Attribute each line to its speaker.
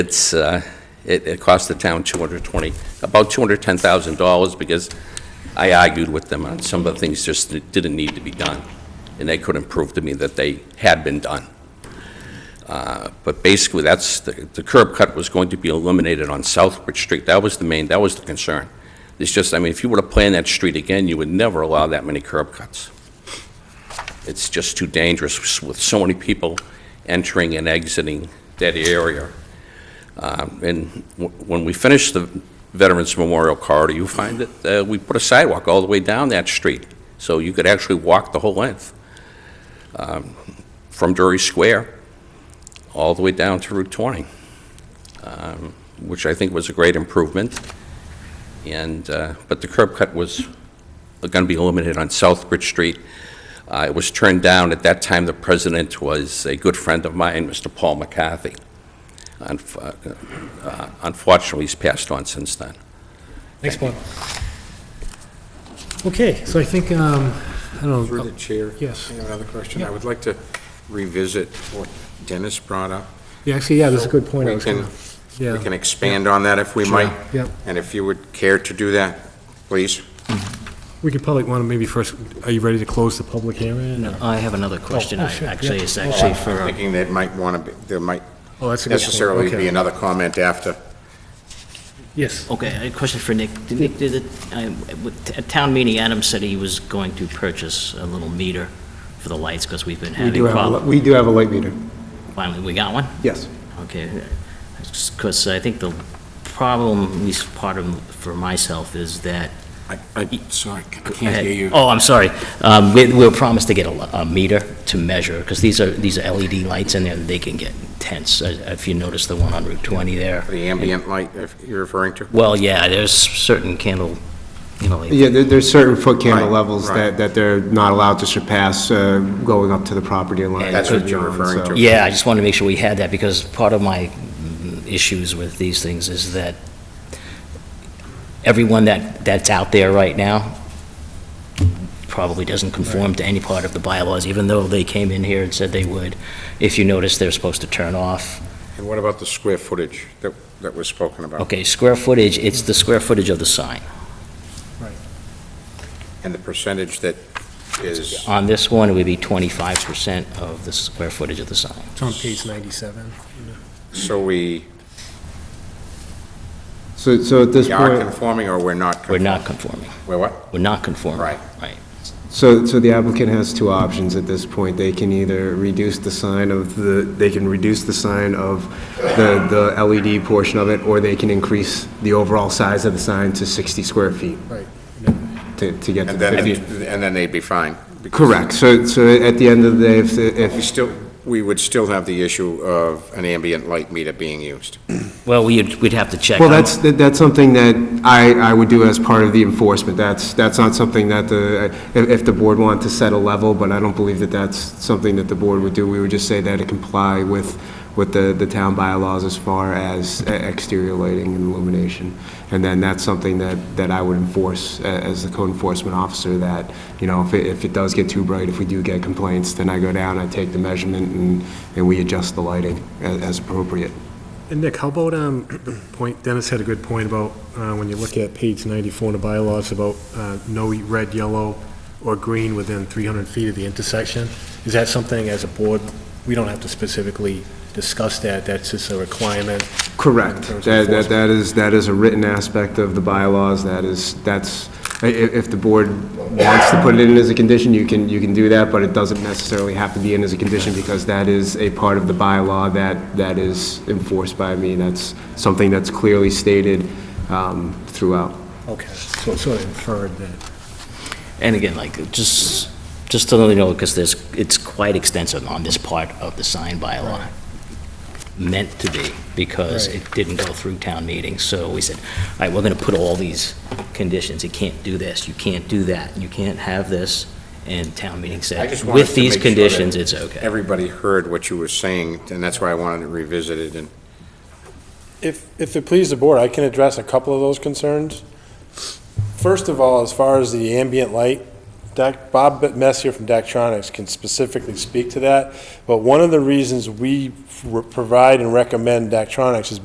Speaker 1: It's, uh, it, it cost the town 220, about $210,000 because I argued with them on some of the things just that didn't need to be done, and they couldn't prove to me that they had been done. Uh, But basically, that's, the the curb cut was going to be eliminated on Southbridge Street. That was the main, that was the concern. It's just, I mean, if you were to plan that street again, you would never allow that many curb cuts. It's just too dangerous with so many people entering and exiting that area. Um, And w- when we finished the Veterans Memorial Corridor, you find that uh, we put a sidewalk all the way down that street, so you could actually walk the whole length um, from Drury Square all the way down to Route 20, um, which I think was a great improvement. And, uh, but the curb cut was going to be eliminated on Southbridge Street. Uh, It was turned down. At that time, the president was a good friend of mine, Mr. Paul McCarthy. Unf- uh, uh, Unfortunately, he's passed on since then.
Speaker 2: Thanks, Bob. Okay, so I think, um, I don't
Speaker 3: Through
Speaker 2: know,
Speaker 3: the chair.
Speaker 2: yes.
Speaker 3: I have another question.
Speaker 2: Yeah.
Speaker 3: I would like to revisit what Dennis brought up.
Speaker 2: yeah, actually, yeah, that's a good point. I
Speaker 3: We
Speaker 2: was
Speaker 3: can,
Speaker 2: gonna-
Speaker 3: we
Speaker 2: Yeah,
Speaker 3: can expand on that if we might.
Speaker 2: Yep.
Speaker 3: And if you would care to do that, please.
Speaker 2: we could probably want to maybe first, are you ready to close the public hearing? or-
Speaker 4: I have another question,
Speaker 2: oh,
Speaker 4: I-
Speaker 2: sure,
Speaker 4: actually,
Speaker 2: yeah.
Speaker 4: it's actually
Speaker 3: I'm
Speaker 4: for, uh, um,
Speaker 3: thinking that might want to be, there might
Speaker 2: Oh, that's a good point.
Speaker 3: necessarily
Speaker 2: Okay.
Speaker 3: be another comment after.
Speaker 2: Yes,
Speaker 4: okay, a question for Nick. Did Nick, did it, I- with- at town meeting, Adam said he was going to purchase a little meter for the lights, because we've been
Speaker 5: We
Speaker 4: having
Speaker 5: do have, a li-
Speaker 4: problems.
Speaker 5: we do have a light meter,
Speaker 4: Finally, we got one?
Speaker 5: yes.
Speaker 4: Okay, because I think the problem, at least part of, for myself, is that
Speaker 3: I, I, sorry, I
Speaker 4: Go
Speaker 3: can't
Speaker 4: ahead.
Speaker 3: hear you.
Speaker 4: Oh, I'm sorry. Um, We we were promised to get a a meter to measure, because these are, these are LED lights in there, they can get intense. Uh, If you notice the one on Route 20 there.
Speaker 3: The ambient light if you're referring to?
Speaker 4: Well, yeah, there's certain candle, you know, like-
Speaker 5: Yeah, there, there's certain foot candle
Speaker 3: Right,
Speaker 5: levels
Speaker 3: right.
Speaker 5: that, that they're not allowed to surpass, uh, going up to the property line.
Speaker 3: That's what you're
Speaker 5: beyond,
Speaker 3: referring
Speaker 5: so-
Speaker 3: to.
Speaker 4: yeah, I just wanted to make sure we had that, because part of my mm, issues with these things is that everyone that, that's out there right now probably doesn't conform to any part of the bylaws, even though they came in here and said they would. If you notice, they're supposed to turn off.
Speaker 3: And what about the square footage that, that was spoken about?
Speaker 4: Okay, square footage, it's the square footage of the sign.
Speaker 3: And the percentage that is,
Speaker 4: On this one, it would be 25% of the square footage of the sign.
Speaker 2: it's on page 97.
Speaker 3: so we
Speaker 5: So, so at this
Speaker 3: we are
Speaker 5: point,
Speaker 3: conforming or we're not?
Speaker 4: We're
Speaker 3: conforming?
Speaker 4: not conforming.
Speaker 3: We're what?
Speaker 4: We're not conforming.
Speaker 3: Right.
Speaker 4: Right.
Speaker 5: so, so the applicant has two options at this point. They can either reduce the sign of the, they can reduce the sign of the, the LED portion of it, or they can increase the overall size of the sign to 60 square feet.
Speaker 2: Right.
Speaker 5: To, to get
Speaker 3: And
Speaker 5: to the
Speaker 3: then,
Speaker 5: 50.
Speaker 3: and then they'd be fine. because
Speaker 5: Correct, so, so at the end of the day, if, if,
Speaker 3: We still, we would still have the issue of an ambient light meter being used.
Speaker 4: Well, we'd, we'd have to check.
Speaker 5: Well, that's, that- that's something that I, I would do as part of the enforcement. That's, that's not something that the, if, if the board wanted to set a level, but I don't believe that that's something that the board would do. We would just say that it comply with, with the, the town bylaws as far as e- exterior lighting and illumination. And then that's something that, that I would enforce a- as the code enforcement officer, that, you know, if it, if it does get too bright, if we do get complaints, then I go down, I take the measurement, and, and we adjust the lighting as, as appropriate.
Speaker 2: And Nick, how about, um, the point, Dennis had a good point about, uh, when you look at page 94 in the bylaws about, uh, no red, yellow, or green within 300 feet of the intersection. Is that something as a board, we don't have to specifically discuss that, that's just a requirement?
Speaker 5: Correct.
Speaker 2: terms of
Speaker 5: That, that, that is, that is a written aspect of the bylaws, that is, that's, i- i- if the board wants to put it in as a condition, you can, you can do that, but it doesn't necessarily have to be in as a condition, because that is a part of the bylaw that, that is enforced by me, that's something that's clearly stated, um, throughout.
Speaker 2: Okay, so it's sort of inferred that.
Speaker 4: And again, like, just, just to let you know, because there's, it's quite extensive on this part of the sign bylaw. Meant to be, because
Speaker 2: Right.
Speaker 4: it didn't go through town meeting, so we said, all right, we're gonna put all these conditions, you can't do this, you can't do that, you can't have this, and town meeting
Speaker 3: I
Speaker 4: said,
Speaker 3: just wanted
Speaker 4: with
Speaker 3: to
Speaker 4: these
Speaker 3: make sure that
Speaker 4: conditions, it's okay.
Speaker 3: Everybody heard what you were saying, and that's why I wanted to revisit it, and
Speaker 6: If, if it pleases the board, I can address a couple of those concerns. First of all, as far as the ambient light, Doc, Bob Messier from Daktronics can specifically speak to that, but one of the reasons we f- provide and recommend Daktronics is